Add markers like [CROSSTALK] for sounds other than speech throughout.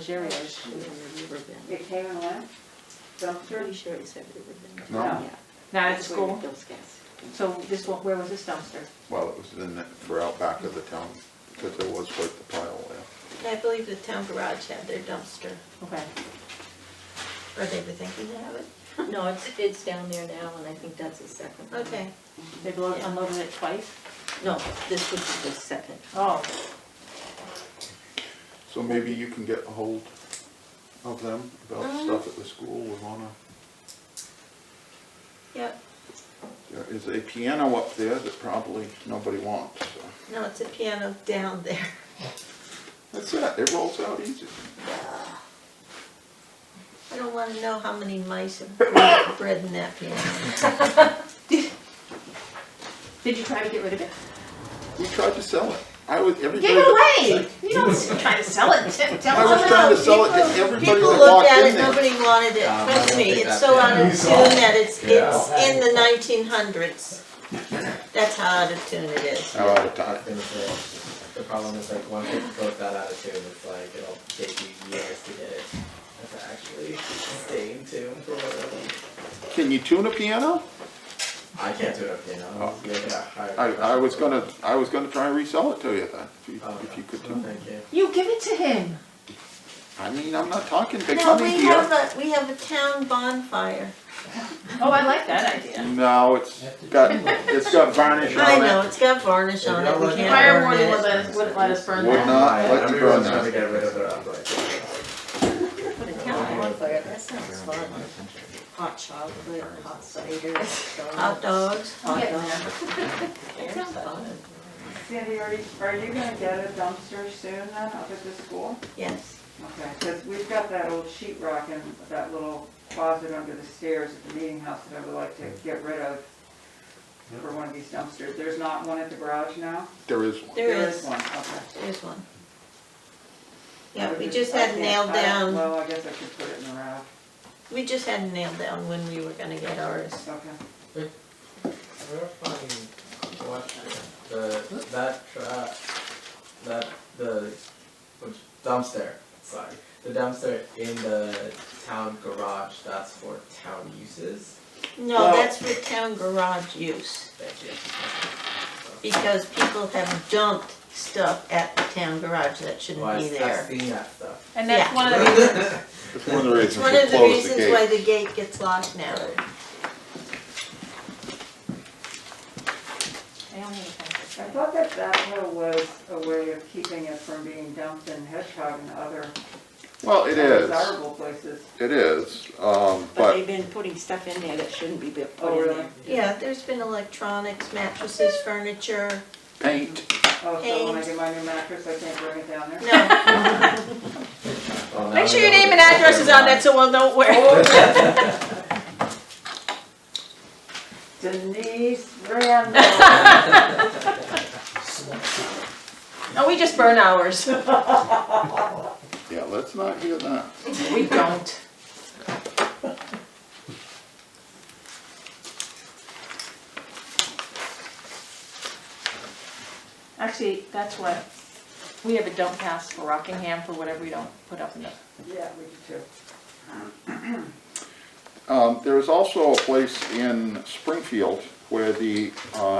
Jerry, It came and went, dumpster, Pretty sure it said Riverbend. No. Yeah. not at That's where school, it fills gas. so this one, where was this dumpster? Well, it was in, the- for out back of the town, because there was quite the pile there. And I believe the town garage had their dumpster, Okay, or they were thinking to have it. No, it's, it's down there now, and I think that's the second one. Okay. they loaded, unloaded it twice? No, this was the second. Oh, So maybe you can get a hold of them about Mhm. stuff at the school, we wanna, Yep, there is a piano up there that probably nobody wants, so. no, it's a piano down there. That's it, it rolls out easy. I don't wanna know how many mice have bred in that piano. did you try to get rid of it? We tried to sell it, I was, everybody. Give it away! You don't s- try to sell it, T- I tell was someone trying to else. sell it to People- everybody People that looked walked at it, in there. nobody wanted it, Um, I trust don't me, think it's that so out piano of is tune off. that it's, Yeah. it's in the nineteen hundreds. That's how out of tune it is. How out of time. gonna say, the problem is like once it goes that attitude, it's like it'll take you years to get it to actually stay in tune for whatever. Can you tune a piano? I can't do it up here now. Oh. You gotta hire. I, I was gonna, I was gonna try and resell it to you then, if you, Oh, if you could no, tune it. Thank you. You give it to him. I mean, I'm not talking big Now, money we here. have a, we have a town bonfire. Oh, I like that idea. No, it's got, it's got varnish I on know, it. it's got varnish on it, we Yeah, Fire can't burn warden it. would let us, wouldn't let us burn Would that. not. I- like to burn Everyone's trying to that. get rid of their upright. Put a town bonfire, that sounds fun. Hot chocolate, hot cider, hot dogs. I'll get that. [LAUGHS] That sounds fun. Sandy, are you, are you gonna get a dumpster soon then up at the school? Yes, Okay, because we've got that old sheet rock and that little closet under the stairs at the meeting house that I would like to get rid of for one of these dumpsters. There's not one at the garage now? There is one. there is, one, okay. there's one. Yeah, I we was just I had can't- nailed I don't- down, Well, I guess I could put it in the rack, we just had nailed down when we were gonna get ours. okay. We're finding what the that trap that the which dumpster. Sorry, the dumpster in the town garage. That's for town uses. No, that's for town garage use, Thank you. because people have dumped stuff at the town garage that Well, I, shouldn't be I've there. seen that [LAUGHS] stuff. And that's Yeah. one of the reasons, It's one of the It's reasons one of we the closed the reasons why gate. the gate gets locked now. I only need a I pencil. thought that that hill was a way of keeping it from being dumped in Hedgehog and other Well, it is, desirable places. it is, um, But but they've been putting stuff in there that shouldn't be put Oh, in really? there. Yeah, there's been electronics, mattresses, furniture, paint, Oh, so when I Hey. get my new mattress, I can't bring it down there? no, [LAUGHS] Well, now Make sure we your know name and that- address is on that, so we'll know where. [LAUGHS] Denise Randall. No, we just burn ours. yeah, let's not hear that. We don't. Actually, that's what, we have a dump pass for Rockingham for whatever we don't put up in the Yeah, we do too. Um, there is also a place in Springfield where the, uh,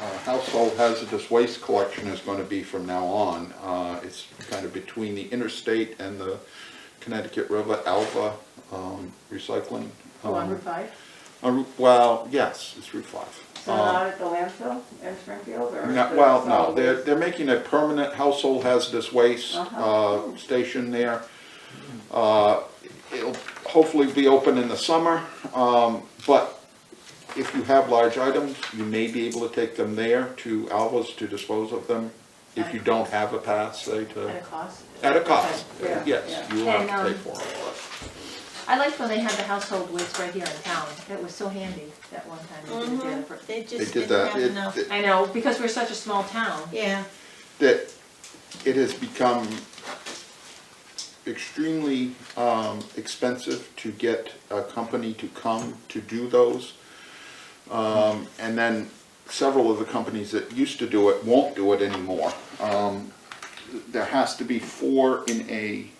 uh, household hazardous waste collection is gonna be from now on. Uh, it's kind of between the interstate and the Connecticut River Alva, um, recycling. Oh, one um, Route five. on Route- Well, yes, it's Route Five. So Um, not at the landfill in Springfield or? No, the well, no, solid they're, waste? they're making a permanent household hazardous waste, Uh-huh. uh, station there. Uh, it'll hopefully be open in the summer, um, but if you have large items, you may be able to take them there to Alva's to dispose of them. If you don't have a pass, say At a to, cost. at a cost, Yeah, yes, yeah. you will have to And, pay for them, but I liked when they had the household waste right here in town. That was so handy that one time. they did it for- they they did just didn't that. have It- enough, it- I know, because we're such a small town. yeah. that it has become extremely um, expensive to get a company to come to do those. Um, And then several of the companies that used to do it won't do it anymore. Um, there has to be four in a